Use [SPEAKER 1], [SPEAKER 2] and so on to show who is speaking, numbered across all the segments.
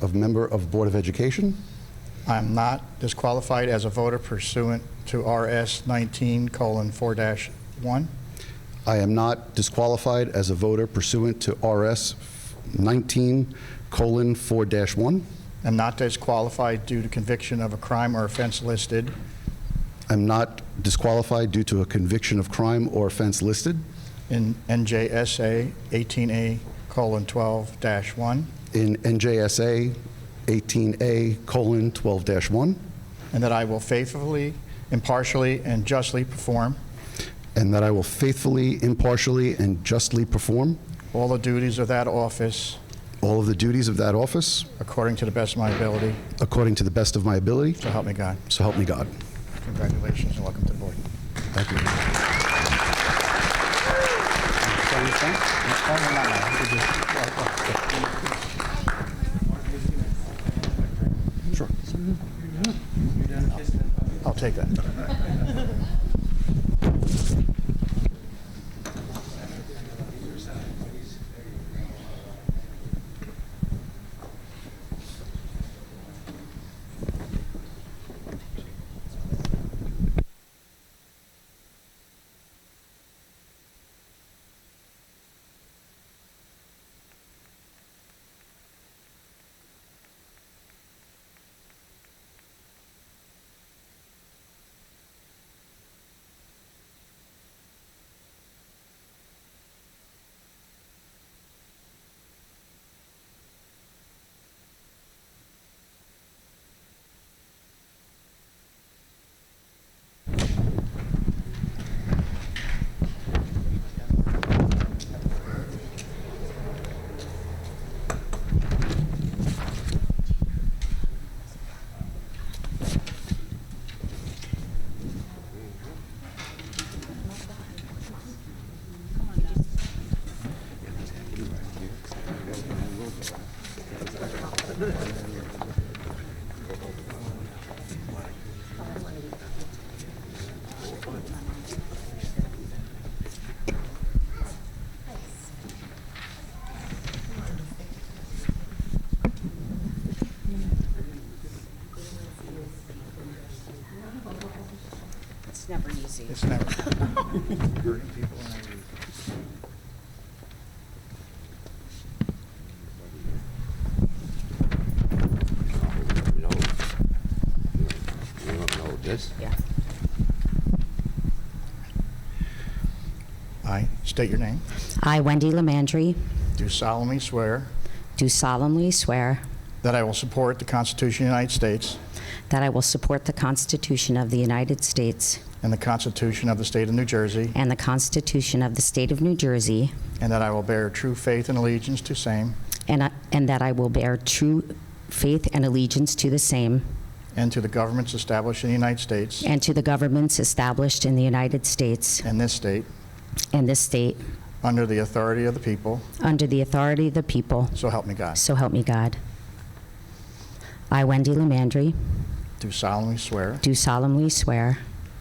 [SPEAKER 1] of member of Board of Education,
[SPEAKER 2] I am not disqualified as a voter pursuant to RS 19:4-1.
[SPEAKER 1] I am not disqualified as a voter pursuant to RS 19:4-1.
[SPEAKER 2] Am not disqualified due to conviction of a crime or offense listed.
[SPEAKER 1] I'm not disqualified due to a conviction of crime or offense listed
[SPEAKER 2] in NJSA 18A:12-1,
[SPEAKER 1] in NJSA 18A:12-1,
[SPEAKER 2] and that I will faithfully, impartially, and justly perform
[SPEAKER 1] and that I will faithfully, impartially, and justly perform
[SPEAKER 2] all the duties of that office
[SPEAKER 1] all of the duties of that office
[SPEAKER 2] according to the best of my ability,
[SPEAKER 1] according to the best of my ability,
[SPEAKER 2] so help me God.
[SPEAKER 1] so help me God.
[SPEAKER 2] Congratulations and welcome to the board.
[SPEAKER 1] Thank you.
[SPEAKER 2] I'll take that.
[SPEAKER 3] It's never easy.
[SPEAKER 2] It's never.
[SPEAKER 4] You know, you don't know this?
[SPEAKER 3] Yeah.
[SPEAKER 2] I state your name.
[SPEAKER 3] I, Wendy Lamandry,
[SPEAKER 2] Do solemnly swear
[SPEAKER 3] do solemnly swear
[SPEAKER 2] that I will support the Constitution of the United States
[SPEAKER 3] that I will support the Constitution of the United States
[SPEAKER 2] and the Constitution of the State of New Jersey,
[SPEAKER 3] and the Constitution of the State of New Jersey,
[SPEAKER 2] and that I will bear true faith and allegiance to same
[SPEAKER 3] and I- and that I will bear true faith and allegiance to the same
[SPEAKER 2] and to the governments established in the United States
[SPEAKER 3] and to the governments established in the United States
[SPEAKER 2] and this state
[SPEAKER 3] and this state
[SPEAKER 2] under the authority of the people,
[SPEAKER 3] under the authority of the people,
[SPEAKER 2] so help me God.
[SPEAKER 3] so help me God. I, Wendy Lamandry,
[SPEAKER 2] Do solemnly swear
[SPEAKER 3] do solemnly swear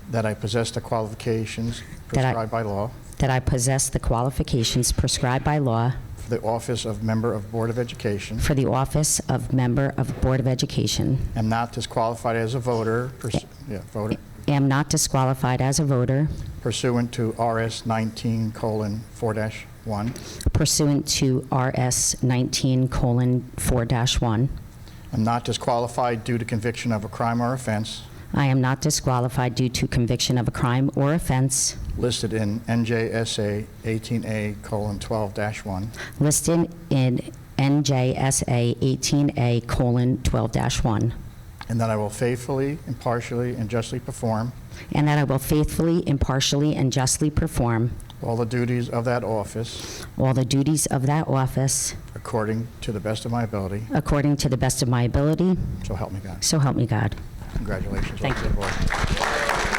[SPEAKER 2] that I possess the qualifications
[SPEAKER 3] That I-
[SPEAKER 2] prescribed by law
[SPEAKER 3] that I possess the qualifications prescribed by law
[SPEAKER 2] for the office of Member of Board of Education,
[SPEAKER 3] for the office of Member of Board of Education.
[SPEAKER 2] am not disqualified as a voter pursu- yeah, voter
[SPEAKER 3] Am not disqualified as a voter
[SPEAKER 2] pursuant to RS 19:4-1.
[SPEAKER 3] pursuant to RS 19:4-1.
[SPEAKER 2] I'm not disqualified due to conviction of a crime or offense
[SPEAKER 3] I am not disqualified due to conviction of a crime or offense
[SPEAKER 2] listed in NJSA 18A:12-1,
[SPEAKER 3] listed in NJSA 18A:12-1,
[SPEAKER 2] and that I will faithfully, impartially, and justly perform
[SPEAKER 3] and that I will faithfully, impartially, and justly perform
[SPEAKER 2] all the duties of that office
[SPEAKER 3] all the duties of that office
[SPEAKER 2] according to the best of my ability,
[SPEAKER 3] according to the best of my ability,
[SPEAKER 2] so help me God.
[SPEAKER 3] so help me God.
[SPEAKER 2] Congratulations.
[SPEAKER 3] Thank
[SPEAKER 2] Welcome to the board.